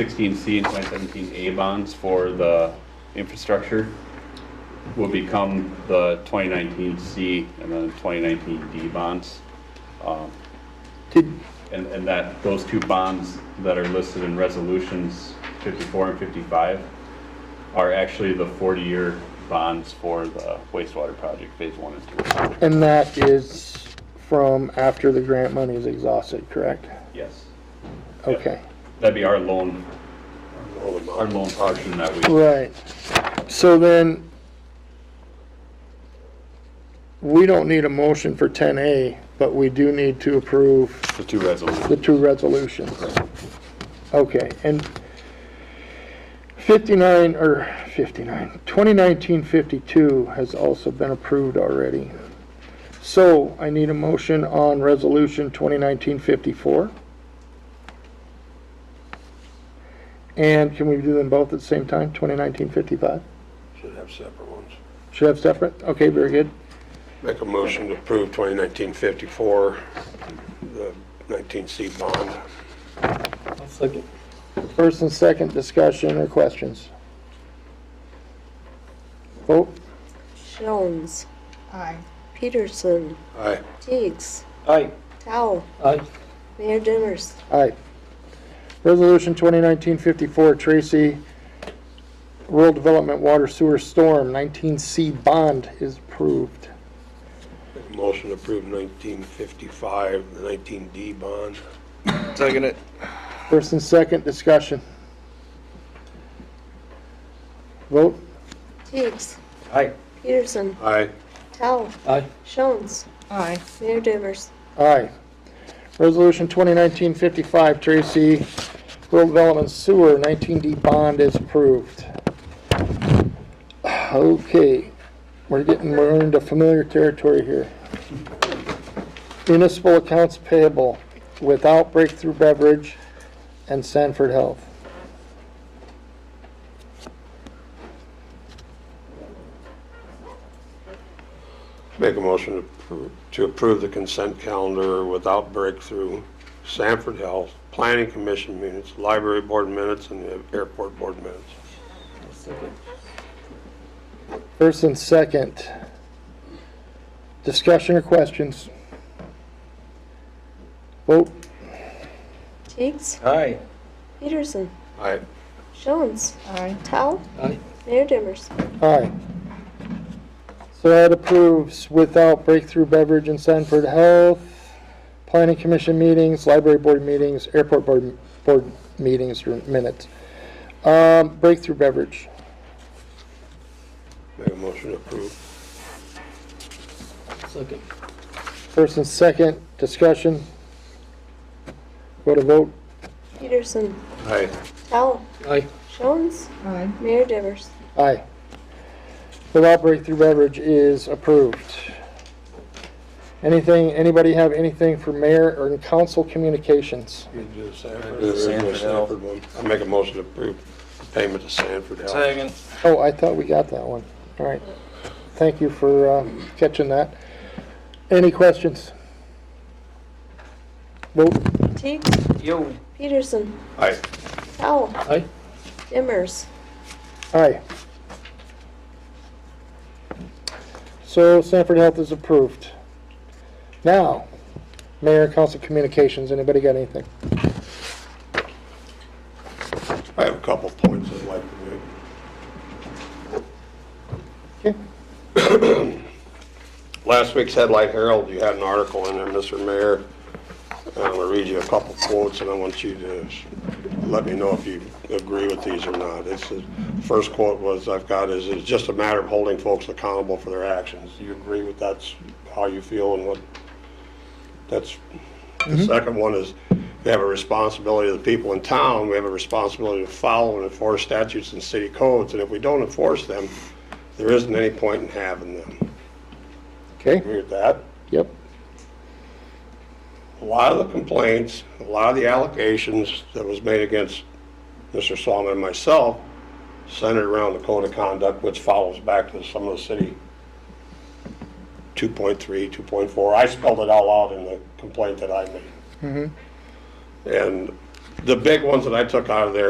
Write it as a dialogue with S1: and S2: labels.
S1: 2016C and 2017A bonds for the infrastructure will become the 2019C and then 2019D bonds. Um,
S2: Did,
S1: And, and that, those two bonds that are listed in resolutions 54 and 55 are actually the 40-year bonds for the wastewater project, phase one and two.
S2: and that is from after the grant money is exhausted, correct?
S1: Yes.
S2: Okay,
S1: That'd be our loan, our loan portion that we,
S2: right. So then, we don't need a motion for 10A, but we do need to approve
S1: the two resolutions.
S2: the two resolutions. Okay, and 59, or 59, 2019-52 has also been approved already. So I need a motion on Resolution 2019-54. And can we do them both at the same time, 2019-55?
S3: Should have separate ones.
S2: Should have separate? Okay, very good.
S3: Make a motion to approve 2019-54, the 19C bond.
S2: First and second discussion or questions? Vote?
S4: Jones. Aye. Peterson.
S3: Aye.
S4: Teigs.
S5: Aye.
S4: Tao.
S5: Aye.
S4: Mayor Dimmers.
S2: Aye. Resolution 2019-54, Tracy, Rural Development Water Sewer Storm, 19C bond is approved.
S3: Make a motion to approve 1955, the 19D bond.
S5: Second it.
S2: First and second discussion. Vote?
S4: Teigs.
S5: Aye.
S4: Peterson.
S3: Aye.
S4: Tao.
S5: Aye.
S4: Jones. Aye. Mayor Dimmers.
S2: Aye. Resolution 2019-55, Tracy, Rural Development Sewer, 19D bond is approved. Okay, we're getting, we're into familiar territory here. Municipal accounts payable without Breakthrough Beverage and Sanford Health.
S3: Make a motion to appro- to approve the consent calendar without breakthrough, Sanford Health, Planning Commission minutes, Library Board minutes, and the Airport Board minutes.
S2: First and second. Discussion or questions? Vote.
S4: Teigs.
S5: Aye.
S4: Peterson.
S3: Aye.
S4: Jones. Aye. Tao.
S5: Aye.
S4: Mayor Dimmers.
S2: Aye. So that approves without breakthrough beverage and Sanford Health, planning commission meetings, library board meetings, airport board, board meetings or minutes. Um, breakthrough beverage.
S3: Make a motion to approve.
S5: Second.
S2: First and second, discussion. Go to vote.
S4: Peterson.
S3: Aye.
S4: Tao.
S5: Aye.
S4: Jones. Aye. Mayor Dimmers.
S2: Aye. Without breakthrough beverage is approved. Anything, anybody have anything for mayor or in council communications?
S3: You do the Sanford.
S5: do the Sanford Health.
S3: Sanford one. I make a motion to approve the payment to Sanford Health.
S5: Second.
S2: Oh, I thought we got that one. All right. Thank you for um, catching that. Any questions? Vote.
S4: Teigs.
S5: Yo.
S4: Peterson.
S3: Aye.
S4: Tao.
S5: Aye.
S4: Dimmers.
S2: Aye. So Sanford Health is approved. Now, Mayor and Council Communications, anybody got anything?
S3: I have a couple points I'd like to make.
S2: Okay.
S3: Last week's Headlight Herald, you had an article in there, Mr. Mayor. I'm gonna read you a couple quotes, and I want you to s- let me know if you agree with these or not. It's, the first quote was, I've got is, it's just a matter of holding folks accountable for their actions. Do you agree with that's how you feel and what, that's, the second one is, we have a responsibility to the people in town, we have a responsibility to follow and enforce statutes and city codes, and if we don't enforce them, there isn't any point in having them.
S2: Okay,
S3: Agree with that?
S2: yep,
S3: a lot of the complaints, a lot of the allegations that was made against Mr. Solomon and myself centered around the code of conduct, which follows back to some of the city 2.3, 2.4. I spelled it all out in the complaint that I made. And the big ones that I took out of there